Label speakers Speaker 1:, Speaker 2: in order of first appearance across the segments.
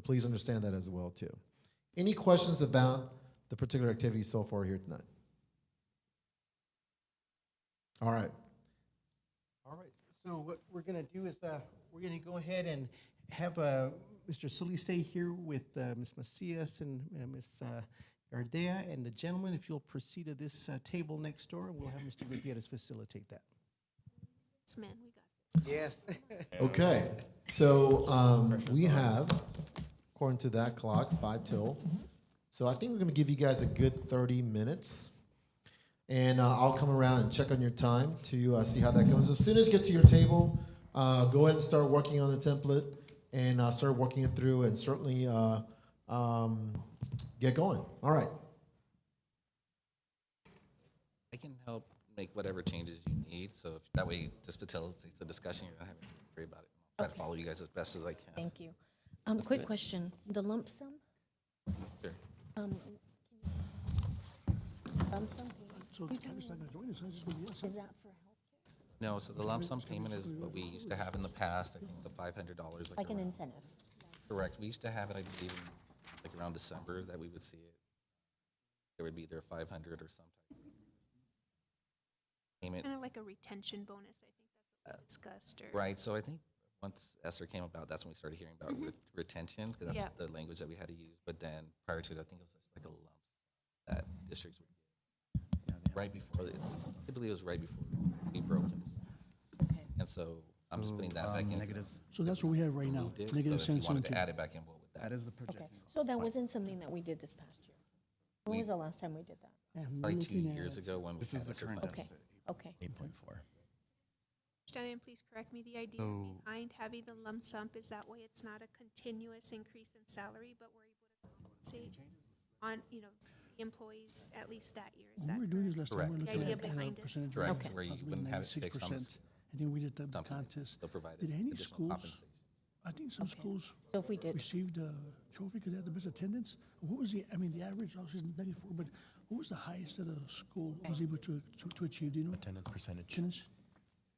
Speaker 1: please understand that as well too. Any questions about the particular activity so far here tonight? All right.
Speaker 2: All right, so what we're gonna do is, uh, we're gonna go ahead and have, uh, Mr. Sully stay here with, uh, Ms. Macias and, uh, Ms. uh, Ardea and the gentleman, if you'll proceed to this, uh, table next door, and we'll have Mr. Gutierrez facilitate that.
Speaker 3: Yes, man, we got
Speaker 2: Yes.
Speaker 1: Okay, so um, we have, according to that clock, five till. So I think we're gonna give you guys a good thirty minutes. And uh, I'll come around and check on your time to uh, see how that goes. As soon as you get to your table, uh, go ahead and start working on the template and uh, start working it through and certainly uh, um, get going. All right.
Speaker 4: I can help make whatever changes you need, so if, that way it just facilitates the discussion, you don't have to worry about it. Try to follow you guys as best as I can.
Speaker 5: Thank you. Um, quick question, the lump sum,
Speaker 4: Sure.
Speaker 5: um, lump sum payment,
Speaker 6: So Tyler's not gonna join us, that's just gonna be us.
Speaker 5: is that for health,
Speaker 4: No, so the lump sum payment is what we used to have in the past, I think the five hundred dollars.
Speaker 5: like an incentive?
Speaker 4: Correct, we used to have it, I believe, in, like around December, that we would see it. There would be either five hundred or some type of payment,
Speaker 3: kind of like a retention bonus, I think that's what
Speaker 2: Uh,
Speaker 3: we discussed or.
Speaker 4: right, so I think once Esther came about, that's when we started hearing about re- retention, because that's
Speaker 3: Yep.
Speaker 4: the language that we had to use, but then prior to it, I think it was just like a lump that districts would get. Right before, it's- I believe it was right before we broke it,
Speaker 5: Okay.
Speaker 4: and so I'm just putting that back
Speaker 7: um,
Speaker 4: in.
Speaker 7: Negatives,
Speaker 6: So that's what we have right now,
Speaker 4: Moved it, so
Speaker 6: negative
Speaker 4: if you
Speaker 6: sense
Speaker 4: wanted to
Speaker 6: into.
Speaker 4: add it back in, what would
Speaker 7: that
Speaker 4: that?
Speaker 7: is the
Speaker 5: Okay,
Speaker 7: projection.
Speaker 5: so that wasn't something that we did this past year? When
Speaker 4: We-
Speaker 5: was the last time we did that?
Speaker 6: And we're
Speaker 4: Probably two
Speaker 6: looking at-
Speaker 4: years ago when. we
Speaker 7: This
Speaker 4: had
Speaker 7: is the
Speaker 4: Esther
Speaker 7: current
Speaker 4: fund.
Speaker 5: Okay,
Speaker 8: uh,
Speaker 7: deficit,
Speaker 5: okay,
Speaker 7: eight point four.
Speaker 3: Shannon, please correct me, the idea
Speaker 7: So-
Speaker 3: behind having the lump sum is that way it's not a continuous increase in salary, but we're able to compensate on, you know, the employees at least that year, is that
Speaker 6: When we were doing this
Speaker 3: correct?
Speaker 6: last time, we
Speaker 4: Correct.
Speaker 6: were
Speaker 3: The
Speaker 6: looking
Speaker 3: idea
Speaker 6: at at a
Speaker 3: behind it.
Speaker 6: percentage.
Speaker 4: Correct,
Speaker 5: Okay.
Speaker 4: where you
Speaker 6: Possibly
Speaker 4: wouldn't have it fixed on
Speaker 6: 96%. I think we did that the
Speaker 4: something.
Speaker 6: contest.
Speaker 4: They'll provide
Speaker 6: Did any
Speaker 4: additional
Speaker 6: schools,
Speaker 4: compensation.
Speaker 6: I think some schools
Speaker 5: so if we did,
Speaker 6: received a trophy because they had the best attendance? What was the, I mean, the average, obviously is ninety-four, but what was the highest that a school was able to, to- to achieve, do you know?
Speaker 7: Attendance percentage.
Speaker 6: Attendance?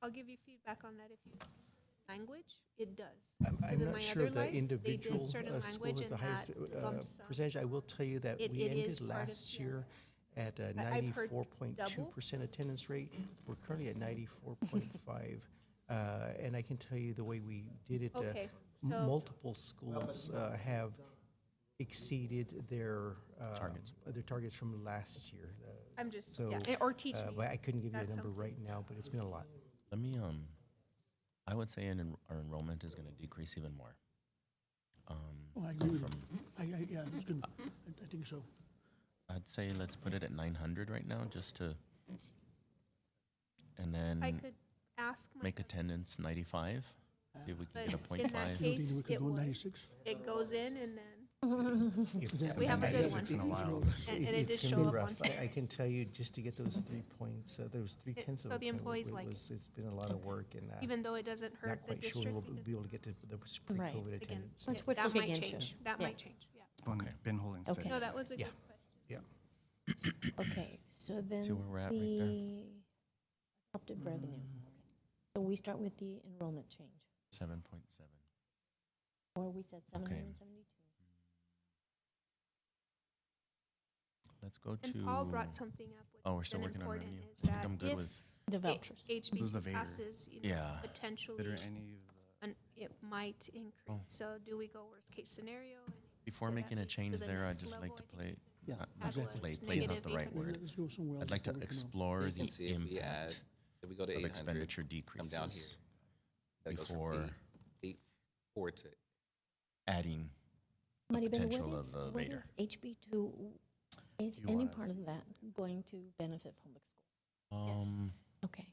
Speaker 3: I'll give you feedback on that if you, language, it does.
Speaker 2: I'm,
Speaker 3: 'Cause
Speaker 2: I'm
Speaker 3: in
Speaker 2: not
Speaker 3: my
Speaker 2: sure
Speaker 3: other
Speaker 2: the
Speaker 3: life, they did
Speaker 2: individual
Speaker 3: certain
Speaker 2: uh, school
Speaker 3: language
Speaker 2: with the
Speaker 3: and
Speaker 2: highest
Speaker 3: that
Speaker 2: uh,
Speaker 3: lump sum.
Speaker 2: percentage. I will tell you that
Speaker 3: It-
Speaker 2: we
Speaker 3: it
Speaker 2: ended
Speaker 3: is part of
Speaker 2: last
Speaker 3: the-
Speaker 2: year at a
Speaker 3: I- I've heard
Speaker 2: ninety-four point two percent attendance rate. We're currently at ninety-four point five. Uh, and I can tell you the way we did it, uh,
Speaker 3: Okay,
Speaker 2: m-
Speaker 3: so-
Speaker 2: multiple schools, uh, have exceeded their, um, their targets from last year. Uh,
Speaker 3: I'm just,
Speaker 2: So,
Speaker 3: yeah, eh, or teach
Speaker 2: uh,
Speaker 3: me.
Speaker 2: but I couldn't give you a
Speaker 3: That's
Speaker 2: number
Speaker 3: something.
Speaker 2: right now, but it's been a lot.
Speaker 8: Let me, um, I would say an, en- our enrollment is going to decrease even more. Um,
Speaker 6: Oh, I agree with you. I, I, yeah, it's good. I, I think so.
Speaker 8: I'd say let's put it at 900 right now just to, and
Speaker 3: I
Speaker 7: Mm,
Speaker 8: then
Speaker 3: could ask my.
Speaker 8: make attendance 95. See if we can get a
Speaker 3: But in
Speaker 8: point
Speaker 3: that
Speaker 8: five.
Speaker 6: You don't think
Speaker 3: case,
Speaker 6: we could
Speaker 3: it
Speaker 6: go
Speaker 3: was.
Speaker 6: ninety-six?
Speaker 3: It goes in and then.
Speaker 2: If that-
Speaker 3: We have a good one.
Speaker 7: Ninety-six in a while.
Speaker 3: And, and it
Speaker 2: It's
Speaker 3: did
Speaker 2: gonna
Speaker 3: show
Speaker 2: be
Speaker 3: up on
Speaker 2: rough. I- I
Speaker 3: tape.
Speaker 2: can tell you, just to get those three points, uh, those three
Speaker 3: It-
Speaker 2: tenths of.
Speaker 3: so
Speaker 2: a
Speaker 3: the
Speaker 2: point,
Speaker 3: employees
Speaker 2: it
Speaker 3: like it.
Speaker 2: was- It's been a lot of work and uh,
Speaker 3: Even though it doesn't
Speaker 2: not
Speaker 3: hurt the
Speaker 2: quite sure
Speaker 3: district.
Speaker 2: we'll be
Speaker 3: because,
Speaker 2: able to get to the
Speaker 5: Right.
Speaker 2: pre-COVID
Speaker 3: Again,
Speaker 2: attendance.
Speaker 5: Let's
Speaker 3: it-
Speaker 5: work-
Speaker 3: that
Speaker 5: look
Speaker 3: might
Speaker 5: into
Speaker 3: change.
Speaker 5: it.
Speaker 3: That
Speaker 5: Yeah.
Speaker 3: might change, yeah.
Speaker 7: Been holding steady.
Speaker 5: Okay.
Speaker 3: No, that was a good
Speaker 2: Yeah.
Speaker 3: question.
Speaker 2: Yeah.
Speaker 5: okay, so then
Speaker 8: See where we're at right there?
Speaker 5: the adopted revenue. Okay. So we start with the enrollment change,
Speaker 8: 7.7.
Speaker 5: or we said seven hundred and seventy-two.
Speaker 8: Let's go to.
Speaker 3: And Paul brought something up, which
Speaker 8: Oh, we're
Speaker 3: has
Speaker 8: still
Speaker 3: been
Speaker 8: working on
Speaker 3: important,
Speaker 8: revenue.
Speaker 3: is
Speaker 8: I think
Speaker 3: that
Speaker 8: I'm good
Speaker 3: if
Speaker 8: with.
Speaker 5: The
Speaker 3: H-
Speaker 5: vouchers.
Speaker 7: This is the
Speaker 3: HB
Speaker 7: Vader.
Speaker 3: passes, you know,
Speaker 8: Yeah.
Speaker 3: potentially,
Speaker 7: Consider any of the.
Speaker 3: an- it might increase.
Speaker 8: Oh.
Speaker 3: So do we go worst case scenario? and
Speaker 8: Before
Speaker 3: so that
Speaker 8: making a
Speaker 3: leads to
Speaker 8: change
Speaker 3: the
Speaker 8: there, I'd
Speaker 3: next
Speaker 8: just
Speaker 3: level,
Speaker 8: like to
Speaker 3: I think.
Speaker 8: play.
Speaker 6: Yeah,
Speaker 8: not-
Speaker 6: exactly.
Speaker 8: Not play, play is not
Speaker 3: Negative
Speaker 8: the right
Speaker 3: Word.
Speaker 6: Let's-
Speaker 8: word.
Speaker 6: Let's go somewhere else.
Speaker 8: I'd like to
Speaker 6: before we come out.
Speaker 8: explore
Speaker 4: You can
Speaker 8: the
Speaker 4: see if we add,
Speaker 8: impact
Speaker 4: if we go to
Speaker 8: of
Speaker 4: 800,
Speaker 8: expenditure
Speaker 4: come down here,
Speaker 8: decreases
Speaker 4: that goes from
Speaker 8: before
Speaker 4: eight- eight four to
Speaker 8: adding the
Speaker 5: Maribel,
Speaker 8: potential
Speaker 5: what
Speaker 8: of
Speaker 5: is,
Speaker 8: the
Speaker 5: what
Speaker 8: Vader.
Speaker 5: is HB two, is
Speaker 7: You
Speaker 5: any
Speaker 7: want
Speaker 5: part
Speaker 7: us-
Speaker 5: of that going to benefit public schools?
Speaker 8: Um.
Speaker 5: Okay.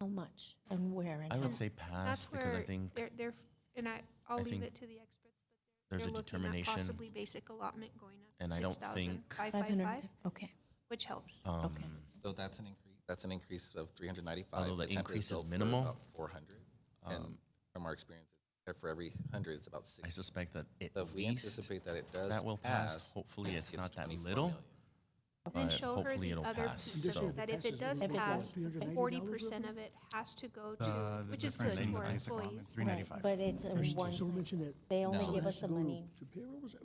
Speaker 5: How much and where and
Speaker 8: I
Speaker 5: how?
Speaker 8: would say
Speaker 3: That's
Speaker 8: pass Ah, because I
Speaker 3: where
Speaker 8: think
Speaker 3: they're, they're, and I, I'll
Speaker 8: I
Speaker 3: leave
Speaker 8: think
Speaker 3: it to the experts. but
Speaker 8: there's
Speaker 3: they're
Speaker 8: a
Speaker 3: looking at
Speaker 8: determination,
Speaker 3: Possibly basic allotment going up.
Speaker 8: and I don't
Speaker 3: 6,000,
Speaker 8: think-
Speaker 3: 555,
Speaker 5: 500, okay.
Speaker 3: which helps.
Speaker 8: um,
Speaker 4: So that's an increase, that's an increase of three hundred ninety-five.
Speaker 8: Although the increase is minimal, Um,
Speaker 4: Four hundred, and from our experience, uh, for every hundred, it's about
Speaker 8: I
Speaker 4: six.
Speaker 8: suspect that at
Speaker 4: So if we
Speaker 8: least
Speaker 4: anticipate that it does
Speaker 8: that will pass. Hopefully, it's not that little.
Speaker 3: Then
Speaker 8: but
Speaker 3: show her
Speaker 8: hopefully
Speaker 3: the
Speaker 8: it'll
Speaker 3: other
Speaker 8: pass,
Speaker 3: piece of
Speaker 8: so-
Speaker 3: it, that if it does
Speaker 5: If it
Speaker 3: pass,
Speaker 5: does.
Speaker 3: forty percent of it has to go to,
Speaker 7: Uh, The- the
Speaker 3: which is good
Speaker 7: difference in
Speaker 3: for
Speaker 7: the basic
Speaker 3: employees.
Speaker 7: allotment, 395.
Speaker 5: But it's a
Speaker 6: There's-
Speaker 5: one
Speaker 6: Someone
Speaker 5: time.
Speaker 6: mentioned that.
Speaker 5: They only
Speaker 4: No.
Speaker 5: give
Speaker 6: Has
Speaker 5: us
Speaker 6: to
Speaker 5: the
Speaker 6: go to-
Speaker 5: money
Speaker 6: To payroll, was it?